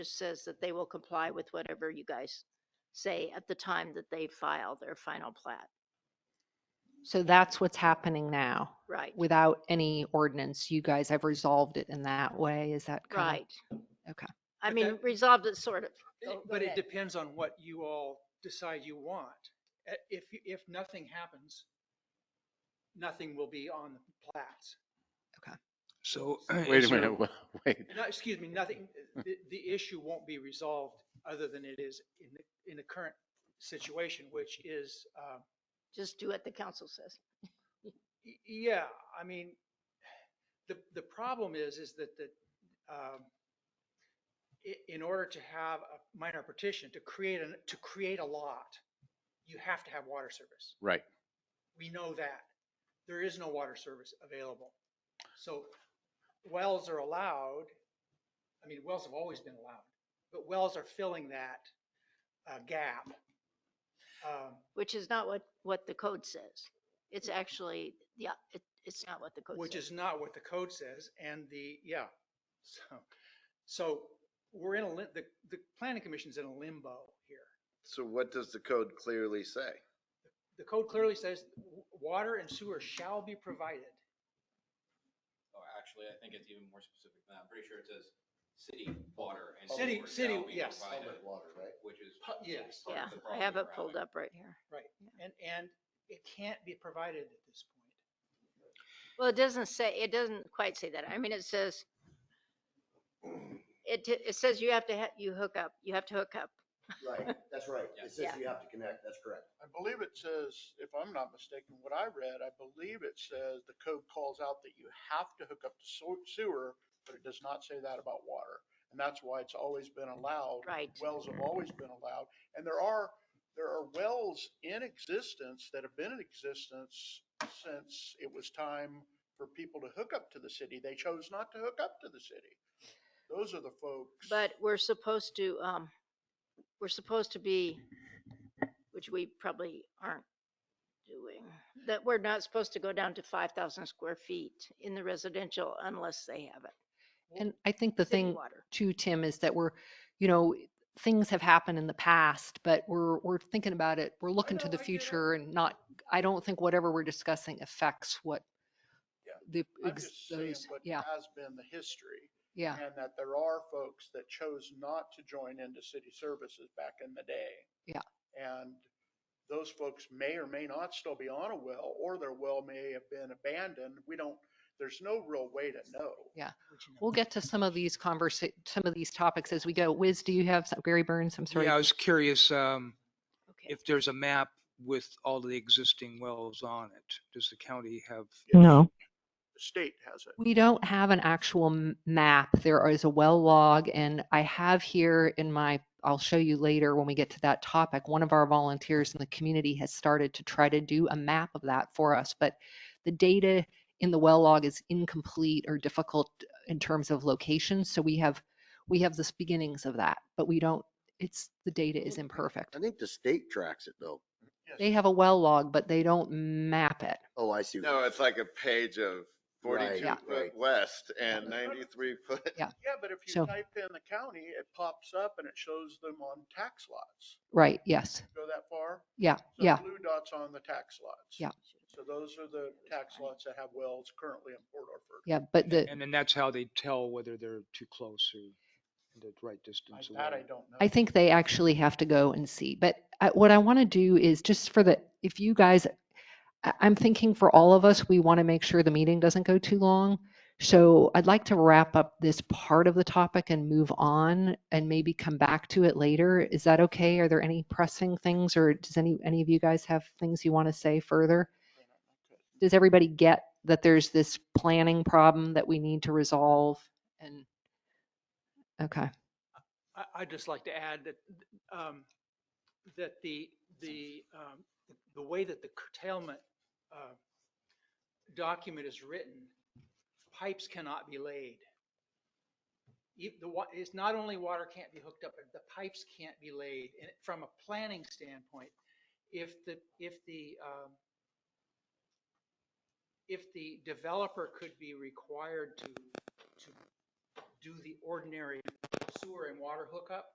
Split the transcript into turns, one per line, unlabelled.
just says that they will comply with whatever you guys say at the time that they file their final plat,
So that's what's happening now.
right?
Without any ordinance, you guys have resolved it in that way. Is that correct?
Right.
okay.
I
But
mean,
that-
resolved it sort of.
It-
Oh, Go- go
But it
ahead.
depends on what you all decide you want. Uh, If, you- if nothing happens, nothing will be on the plats.
So.
Wait
is
a
there-
minute, hmm. wha- wait.
No, excuse me, nothing, the, the issue won't be resolved other than it is in the, in the current situation, which is, uh,
Just do what the council says.
y- yeah, I mean, the, the problem is, is that the, um, i- in order to have a minor petition, to create, an to create a lot, you have to have water service.
Right.
We know that. There is no water service available. So wells are allowed. I mean, wells have always been allowed, but wells are filling that uh, gap. Um,
Which is not what, what the code says. It's actually, yeah, it, it's not what the code says.
Which is not what the code says and the, yeah. So, so we're in a, lim- the, the planning commission's in a limbo here.
So what does the code clearly say?
The code clearly says w- water and sewer shall be provided.
Oh, actually, I think it's even more specific than that. I'm pretty sure it says city water and.
City-
sewer
city-
shall be
yes.
provided,
water, right?
Which is.
Pu- yes.
part
Yeah,
of the
I
problem
have it
we're
pulled up
having.
right here.
And, and it can't be provided at this point.
Well, it doesn't say, it doesn't quite say that. I mean, it says, it, t- it says you have to, ha- you hook up, you have to hook up.
Right, that's right.
Yeah.
It says
Yeah.
you have to connect, that's correct.
I believe it says, if I'm not mistaken, what I read, I believe it says the code calls out that you have to hook up to sew- sewer, but it does not say that about water. And that's why it's always been allowed.
Right.
Wells have always been allowed. And there are, there are wells in existence that have been in existence since it was time for people to hook up to the city. They chose not to hook up to the city. Those are the folks.
But we're supposed to, um, we're supposed to be, which we probably aren't doing, that we're not supposed to go down to five thousand square feet in the residential unless they have it.
And I think the
City
thing
water.
too, Tim, is that we're, you know, things have happened in the past, but we're, we're thinking about it. We're looking to
know,
the
I get it.
future and not, I don't think whatever we're discussing affects what
Yeah.
the,
I'm
ex-
just saying
those,
what
yeah,
has been the history.
yeah.
And that there are folks that chose not to join into city services back in the day.
Yeah.
And those folks may or may not still be on a well, or their well may have been abandoned. We don't, there's no real way to know.
which you know-
We'll get to some of these conversa, some of these topics as we go. Wiz, do you have, some- Gary Burns, I'm sorry.
Yeah, I was curious, um,
Okay.
if there's a map with all the existing wells on it, does the county have?
No. The state has it.
We don't have an actual m- map. There is a well log and I have here in my, I'll show you later when we get to that topic. One of our volunteers in the community has started to try to do a map of that for us, but the data in the well log is incomplete or difficult in terms of location. So we have, we have the beginnings of that, but we don't, it's, the data is imperfect.
I think the state tracks it though.
They have a well log, but they don't map it.
Oh, I see. what
No,
you're
it's like a page of
Right,
forty-two
Yeah.
foot
right.
west and ninety-three foot.
Yeah, but if
So-
you type in the county, it pops up and it shows them on tax lots.
Right, yes.
Go that far?
Yeah,
So
yeah.
Blue dots on the tax lots.
Yeah.
So those are the tax lots that have wells currently in Port Orford.
Yeah, but the,
And then that's how they tell whether they're too close or the right distance away.
That I don't know.
I think they actually have to go and see. But I- what I want to do is just for the, if you guys, I- I'm thinking for all of us, we want to make sure the meeting doesn't go too long. So I'd like to wrap up this part of the topic and move on and maybe come back to it later. Is that okay? Are there any pressing things or does any, any of you guys have things you want to say further? Does everybody get that there's this planning problem that we need to resolve? And, okay.
I, I'd just like to add that, um, that the, the, um, the way that the curtailment, uh, document is written, pipes cannot be laid. E- The wa, it's not only water can't be hooked up, but the pipes can't be laid. And from a planning standpoint, if the, if the, um, if the developer could be required to, to do the ordinary sewer and water hookup.